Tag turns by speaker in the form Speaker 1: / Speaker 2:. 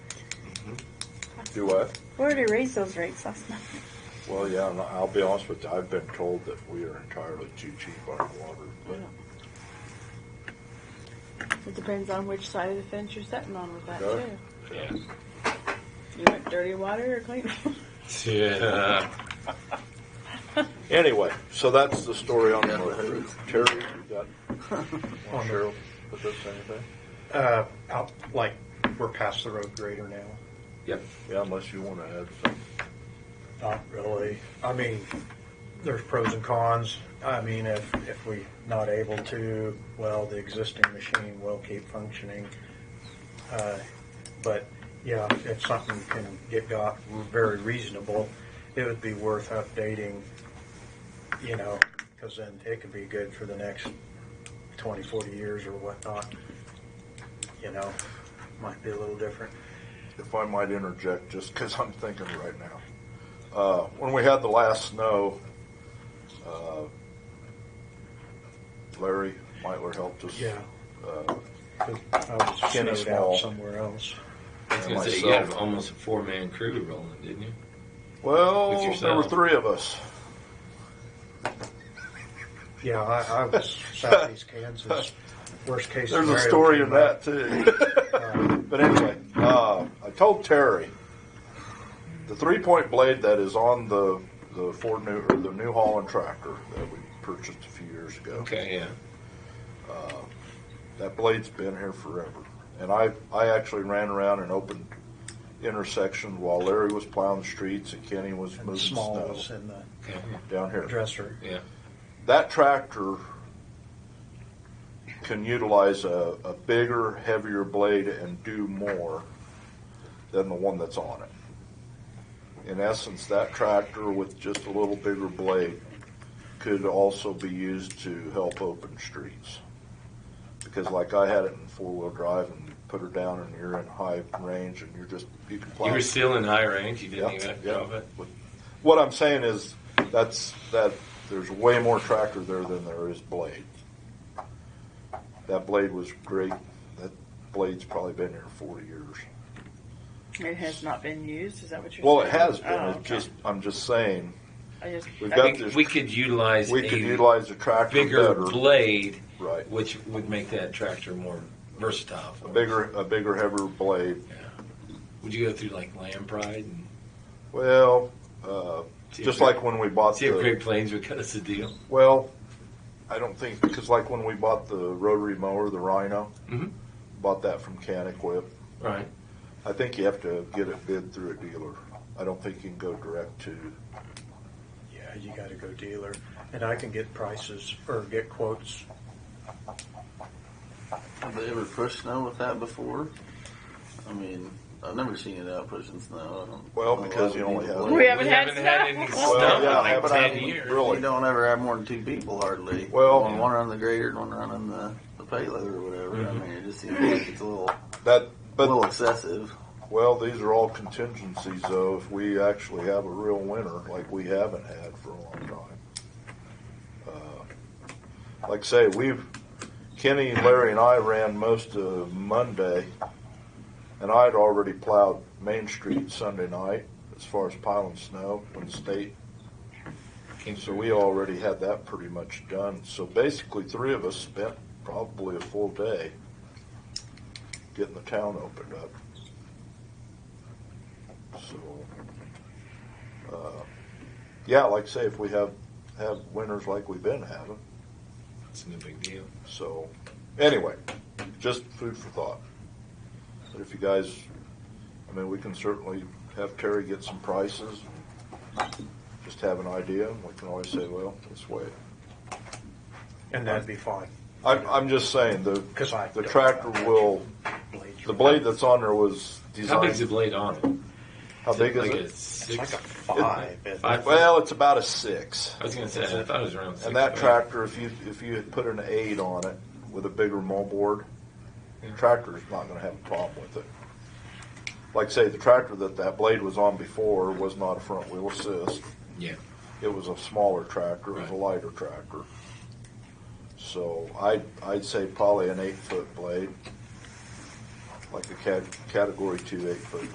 Speaker 1: Do what?
Speaker 2: We already raised those rates last month.
Speaker 1: Well, yeah, and I'll be honest with you, I've been told that we are entirely too cheap on water, but
Speaker 2: It depends on which side of the fence you're sitting on with that
Speaker 1: Yeah.
Speaker 2: too.
Speaker 3: Yeah.
Speaker 2: You want dirty water or clean?
Speaker 3: Yeah.
Speaker 1: anyway, so that's the story on the motor. Terry, you got, want Cheryl to put this anything?
Speaker 4: Uh, out, like, we're past the road grader now.
Speaker 3: Yep.
Speaker 1: Yeah, unless you wanna add something.
Speaker 4: Not really. I mean, there's pros and cons. I mean, if, if we not able to, well, the existing machine will keep functioning. Uh, But, yeah, if something can get got very reasonable, it would be worth updating, you know, because then it could be good for the next 20, 40 years or whatnot. You know, might be a little different.
Speaker 1: if I might interject, just because I'm thinking right now. Uh, when we had the last snow, uh, Larry Meitler helped us.
Speaker 4: Yeah.
Speaker 1: Uh,
Speaker 4: 'Cause I was
Speaker 1: Skinny
Speaker 4: snowed
Speaker 1: small.
Speaker 4: out somewhere else.
Speaker 3: I was
Speaker 1: and
Speaker 3: gonna say you had
Speaker 1: myself.
Speaker 3: almost a four man crew rolling, didn't you? with
Speaker 1: Well,
Speaker 3: yourself.
Speaker 1: there were three of us.
Speaker 4: Yeah, I, I was southeast Kansas. Worst case
Speaker 1: There's
Speaker 4: scenario.
Speaker 1: a story
Speaker 4: came
Speaker 1: in that
Speaker 4: up.
Speaker 1: too. but anyway, uh, I told Terry the three-point blade that is on the the Ford New or the New Holland tractor that we purchased a few years ago.
Speaker 3: Okay, yeah.
Speaker 1: That blade's been here forever. And I, I actually ran around and opened intersections while Larry was plowing the streets and Kenny was
Speaker 4: And
Speaker 1: moving
Speaker 4: small
Speaker 1: snow
Speaker 4: was in the
Speaker 3: Okay.
Speaker 1: down here.
Speaker 4: dresser.
Speaker 3: Yeah.
Speaker 1: That tractor can utilize a, a bigger, heavier blade and do more than the one that's on it. In essence, that tractor with just a little bigger blade could also be used to help open streets. Because like I had it in four-wheel drive and you put her down and you're in high range and you're just, you can plow.
Speaker 3: You were still in high range. You didn't
Speaker 1: Yeah,
Speaker 3: even have to
Speaker 1: yeah.
Speaker 3: drop it.
Speaker 1: What I'm saying is, that's, that, there's way more tractor there than there is blade. That blade was great, that blade's probably been here forty years.
Speaker 2: It has not been used, is that what you're saying?
Speaker 1: Well, it has
Speaker 2: Oh,
Speaker 1: been, it's
Speaker 2: okay.
Speaker 1: just, I'm just saying,
Speaker 2: I just,
Speaker 1: we've
Speaker 2: I
Speaker 1: got
Speaker 2: think-
Speaker 1: this-
Speaker 3: We could utilize
Speaker 1: we
Speaker 3: a
Speaker 1: could utilize the tractor
Speaker 3: bigger
Speaker 1: better,
Speaker 3: blade,
Speaker 1: right,
Speaker 3: which would make that tractor more versatile. For
Speaker 1: a
Speaker 3: us.
Speaker 1: bigger, a bigger, heavier blade,
Speaker 3: Would you go through like Land Pride and
Speaker 1: well, uh,
Speaker 3: See if
Speaker 1: just
Speaker 3: we-
Speaker 1: like when uh, we bought
Speaker 3: see if
Speaker 1: the,
Speaker 3: Great Plains would cut us a deal?
Speaker 1: well, I don't think, because like when we bought the rotary mower, the Rhino,
Speaker 3: Mhm.
Speaker 1: bought that from Can Equip,
Speaker 3: Right.
Speaker 1: I think you have to get it bid through a dealer. I don't think you can go direct to,
Speaker 4: Yeah, you got to go dealer, and I can get prices or get quotes.
Speaker 5: Have they ever pushed snow with that before? I mean, I've never seen it out pushing snow. I don't
Speaker 1: Well,
Speaker 5: know
Speaker 1: because
Speaker 5: why
Speaker 1: you
Speaker 5: we
Speaker 1: only
Speaker 5: need
Speaker 1: have-
Speaker 5: a blade.
Speaker 2: We haven't
Speaker 3: we
Speaker 2: had
Speaker 3: haven't had
Speaker 2: snow.
Speaker 3: any snow
Speaker 2: Well,
Speaker 3: in
Speaker 1: yeah,
Speaker 3: like
Speaker 1: haven't
Speaker 3: ten
Speaker 1: had-
Speaker 3: years.
Speaker 1: really.
Speaker 5: You don't ever have more than two people hardly.
Speaker 1: Well-
Speaker 5: one, one running the grader, and one running the, the payloader or whatever. I mean, it just seems like it's a little,
Speaker 1: that,
Speaker 5: a little
Speaker 1: but,
Speaker 5: excessive.
Speaker 1: well, these are all contingencies though, if we actually have a real winter like we haven't had for a long time. Uh, Like I say, we've, Kenny, Larry and I ran most of Monday and I'd already plowed Main Street Sunday night as far as piling snow when the state
Speaker 3: Came
Speaker 1: So
Speaker 3: through.
Speaker 1: we already had that pretty much done. So basically, three of us spent probably a full day getting the town opened up. So, uh, yeah, like I say, if we have, have winters like we've been having.
Speaker 3: It's no big deal.
Speaker 1: So, anyway, just food for thought. But if you guys, I mean, we can certainly have Terry get some prices, just have an idea, and we can always say, well, let's wait.
Speaker 4: And that'd be fine.
Speaker 1: I'm, I'm just saying, the,
Speaker 4: 'Cause I
Speaker 1: the
Speaker 4: don't-
Speaker 1: tractor will,
Speaker 4: Blades
Speaker 1: the
Speaker 4: are-
Speaker 1: blade that's on there was
Speaker 3: How big's the
Speaker 1: designed,
Speaker 3: blade on it?
Speaker 1: how big
Speaker 3: like
Speaker 1: is
Speaker 3: A
Speaker 4: It's
Speaker 3: six,
Speaker 4: like a five.
Speaker 1: it?
Speaker 4: isn't
Speaker 3: five-
Speaker 4: it?
Speaker 1: Well, it's about a six.
Speaker 3: I was gonna say I thought it was around. Six
Speaker 1: And that
Speaker 3: foot.
Speaker 1: tractor, if you, if you had put an eight on it with a bigger moldboard,
Speaker 3: Yeah.
Speaker 1: tractor's not gonna have a problem with it. Like I say, the tractor that that blade was on before was not a front wheel assist.
Speaker 3: Yeah.
Speaker 1: It was a smaller tractor, it was a
Speaker 3: Right.
Speaker 1: lighter tractor. So I, I'd say probably an eight-foot blade, like a cat, category two eight-foot